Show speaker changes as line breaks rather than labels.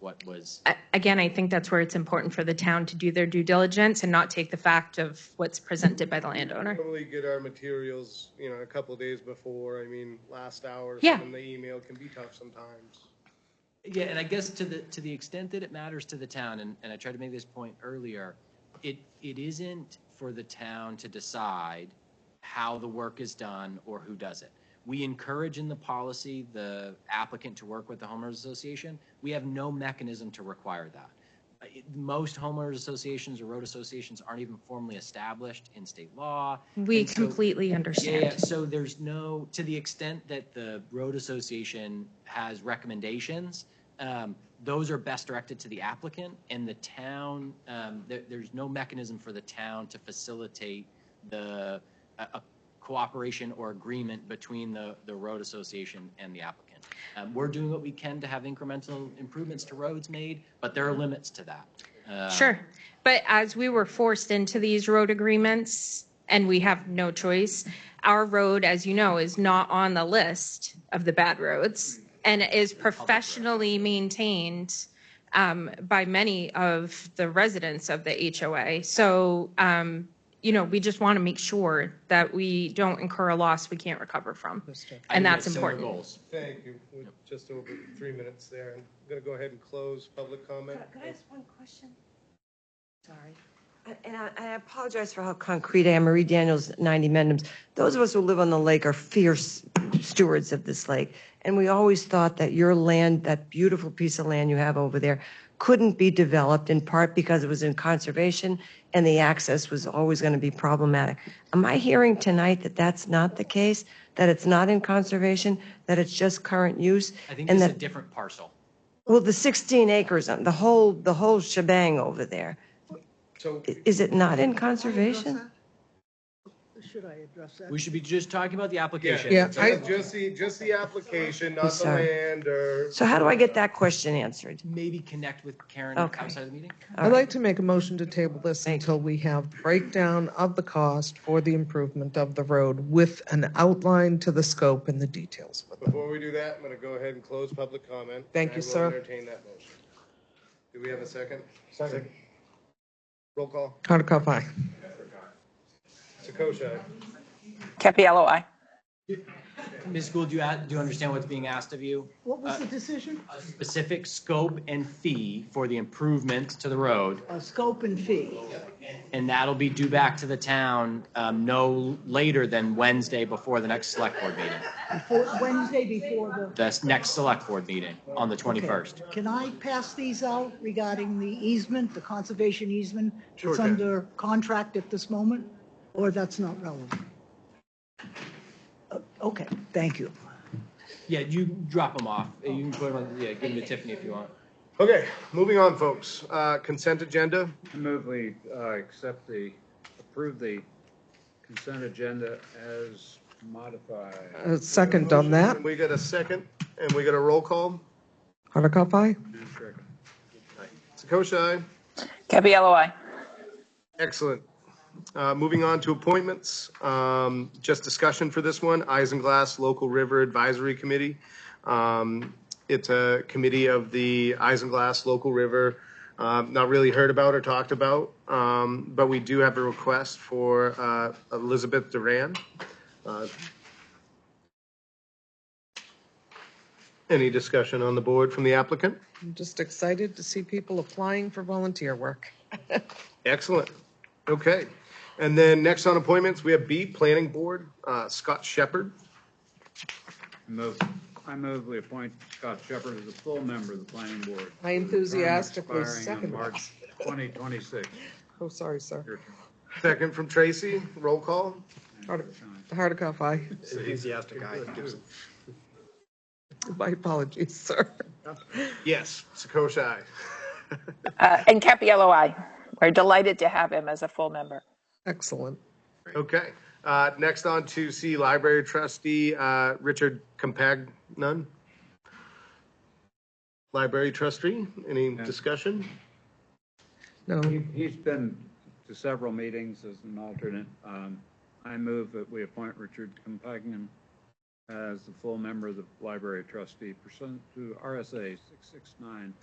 what was,
I- Again, I think that's where it's important for the town to do their due diligence and not take the fact of what's presented by the landowner.
Normally get our materials, you know, a couple of days before, I mean, last hour,
Yeah.
and the email can be tough sometimes.
yeah, and I guess to the, to the extent that it matters to the town, and, and I tried to make this point earlier, it, it isn't for the town to decide how the work is done or who does it. We encourage in the policy the applicant to work with the homeowners association. We have no mechanism to require that. Uh, it- Most homeowners associations or road associations aren't even formally established in state law.
We
And so-
completely
Yeah, yeah,
understand.
so there's no, to the extent that the road association has recommendations, um, those are best directed to the applicant and the town, um, there, there's no mechanism for the town to facilitate the, a, a cooperation or agreement between the, the road association and the applicant. Um, we're doing what we can to have incremental improvements to roads made, but there are limits to that. Uh,
Sure. um, But as we were forced into these road agreements, and we have no choice, our road, as you know, is not on the list of the bad roads and is professionally maintained um, by many of the residents of the HOA. So, um, you know, we just want to make sure that we don't incur a loss we can't recover from.
I
And
think
that's
it's similar
important.
goals.
Thank you, we're just over three minutes there, I'm gonna go ahead and close public comment.
Could could I ask one question? Sorry. I- And I, I apologize for how concrete I am. Marie Daniels, 90 Mendhams. Those of us who live on the lake are fierce stewards of this lake. And we always thought that your land, that beautiful piece of land you have over there, couldn't be developed in part because it was in conservation and the access was always going to be problematic. Am I hearing tonight that that's not the case? That it's not in conservation, that it's just current use?
I think
and
it's a
that-
different parcel.
well, the 16 acres, the whole, the whole shebang over there,
So,
i- is it not in conservation?
Should I address that?
We should be just talking about the application.
yeah, just just the, just the application, not the
Sorry.
land or.
So how do I get that question answered?
maybe connect with Karen
Okay.
outside of the meeting?
I'd like to make a motion to table this until we have breakdown of the cost for the improvement of the road with an outline to the scope and the details with it.
Before we do that, I'm gonna go ahead and close public comment.
Thank
and I
you,
will
sir.
Entertain that motion. Do we have a second? Second. Roll call,
Hardikoff, aye.
Sakosha.
Capiello, I.
Ms. Gould, do you, a- do you understand what's being asked of you? Uh,
What was the decision?
A specific scope and fee for the improvements to the road,
Uh, Scope and fee.
and that'll be due back to the town um, no later than Wednesday before the next select board meeting,
Before- Wednesday before
the s- next select board meeting on the
the.
21st.
Can I pass these out regarding the easement, the conservation easement?
Sure
It's
can.
under contract at this moment, or that's not relevant? Uh, Okay, thank you.
Yeah, you drop them off. You can put 'em on, yeah, give them to Tiffany if you want.
Okay, moving on, folks. Uh, Consent agenda,
I move we uh, accept the, approve the consent agenda as modified.
Uh, Second on that,
we got a second, and we got a roll call.
Hardikoff, aye.
Sakosha, aye.
Capiello, I.
excellent. Uh, Moving on to appointments, um, just discussion for this one, Isinglass Local River Advisory Committee. Um, It's a committee of the Isinglass Local River, um, not really heard about or talked about, um, but we do have a request for uh, Elizabeth Duran. Uh, Any discussion on the board from the applicant?
I'm just excited to see people applying for volunteer work.
Excellent. Okay. And then next on appointments, we have B, Planning Board, uh, Scott Shepherd.
I move- I move we appoint Scott Shepherd as a full member of the planning board.
I enthusiastically
Term expiring on
second that.
March 2026.
Oh, sorry, sir.
Your
Second from Tracy, roll call.
Hardi- Hardikoff, aye.
Enthusiastic guy.
My apologies, sir.
Yes, Sakosha, aye.
Uh, and Capiello, I. We're delighted to have him as a full member.
Excellent.
Okay. Uh, Next on to C, Library Trustee, uh, Richard Compag, none? Library Trustee, any discussion?
No,
He- He's been to several meetings as an alternate. Um, I move that we appoint Richard Compagnon as the full member of the library trustee pursuant to RSA 669